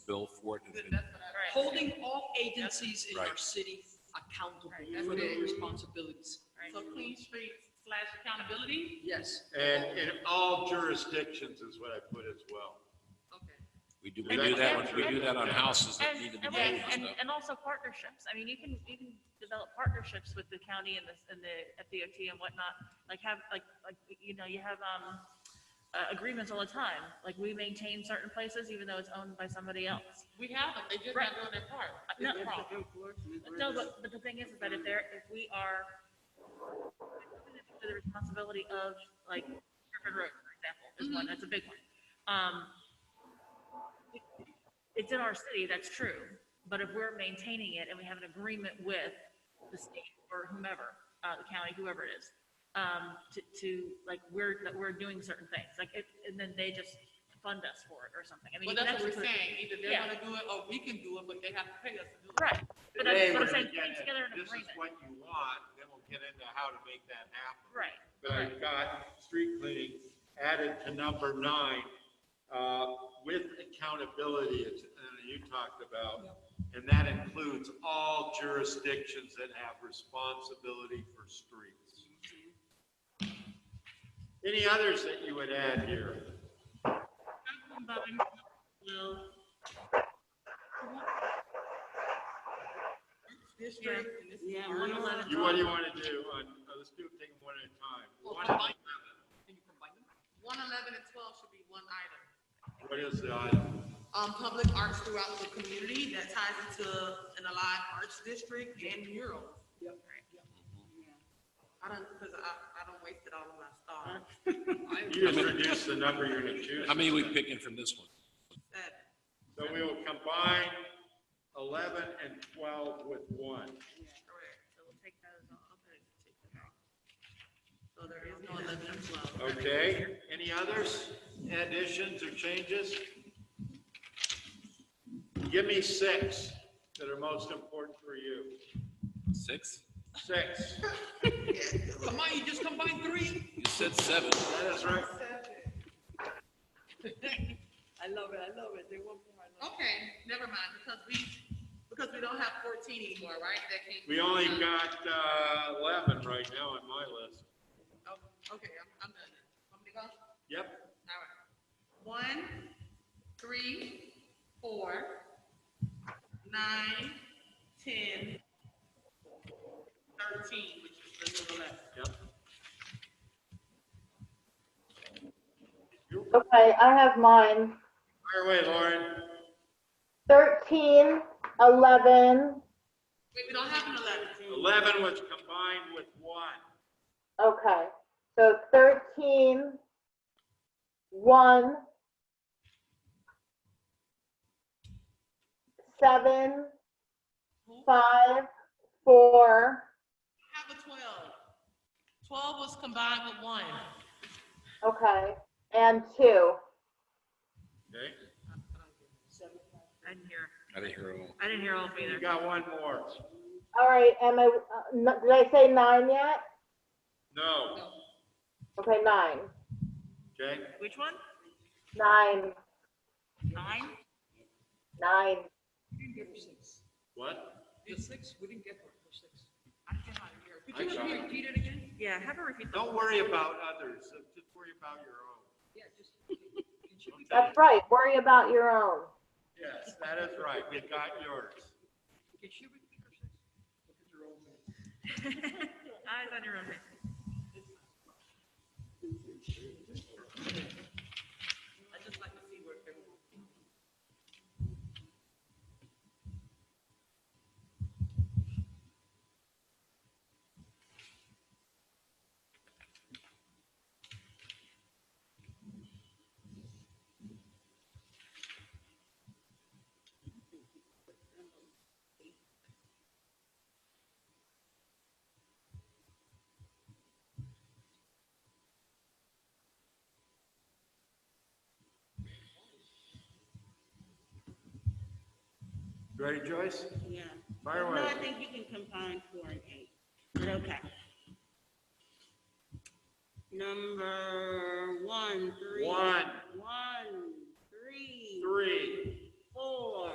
bill for it. and That- been- that- Holding all agencies in our Right. city accountable Right, that's for what it their is. responsibilities. So clean street slash accountability? Yes. And in all jurisdictions is what I put as well. Okay. We do, we And- do that, and- on- we do that on and- houses that And, need to be mowed and, wait, and and, stuff. and also partnerships. I mean, you can, you can develop partnerships with the county and the, and the FDOT and whatnot. Like have, like, like, you know, you have, um, uh, agreements all the time. Like we maintain certain places even though it's owned by somebody else. We have them, they just Right. not doing their part. No, It's a problem. No, but, but the thing is, is that if there, if we are, for the responsibility of, like, Griffin Road, for example, is Mm-hmm. one, that's a big one. Um, it's in our city, that's true, but if we're maintaining it and we have an agreement with the state or whomever, uh, the county, whoever it is, um, to, to, like, we're, that we're doing certain things, like, it, and then they just fund us for it or something. I mean, Well, that's what just we're saying, either they're Yeah. gonna do it or we can do it, but they have to pay us to do it. Right, but Today, I'm, but we're I'm saying, gonna putting get together an it. This is agreement, what you want, then we'll get into how to make that happen. right. But I've got street cleaning added to number nine, uh, with accountability, as uh, you talked about. And that includes all jurisdictions that have responsibility for streets. Mm-hmm. Any others that you would add here? District. Yeah. one one eleven. You, what do you want to do? on- uh, Let's do, take them one at a time. Well, One at combine- Can you combine them? One eleven and twelve should be one item. a time. What is the item? Um, public arts throughout the community that ties into an alive arts district and murals. Yep. I don't, cause I, I don't wasted all of my stars. You just reduce the number you're going to choose. How many are we picking from this one? That- So we will combine 11 and 12 with one. Correct, so we'll take those off. So there is no eleven and twelve. Okay, any others, additions or changes? Give me six that are most important for you. Six? Six, Come on, you just combine three? You said seven. that is right. I love it, I love it. They want more. I love Okay, never mind, because we, because we don't have fourteen anymore, right? That came. We only got uh, 11 right now on my list. Oh, Okay, I'm, I'm done. Want me to go? All Yep, right. One, three, four, nine, ten, thirteen, which is the number eleven. yep. You- Okay, I have mine. Fire away, Lauren. 13, 11, Wait, we don't have an eleven. 11 was combined with one. okay. So 13, 1, 7, 5, 4, Have a twelve. Twelve was combined with one. okay, and 2. Okay, I I didn't hear, didn't hear all. I didn't hear all of you either. got one more. All right, am I, uh, n- did I say 9 yet? No, Okay, 9. okay, Which one? 9, Nine? 9. it. We didn't get her six. what? The six, we didn't get her for six. I cannot hear. Could I you got it. repeat- repeat it again? Yeah, have her repeat the. Don't worry about others, just worry about your own. Yeah, just. Could you repeat That's right, worry about your own. Yes, that is right, we got yours. Could you repeat her six? Look at your old man. Eyes on your own. I just like to see where everyone. Ready, Joyce? Yeah. Fire No, away. I think you can combine four and eight, but okay. Number one, three. One. One, three. Three.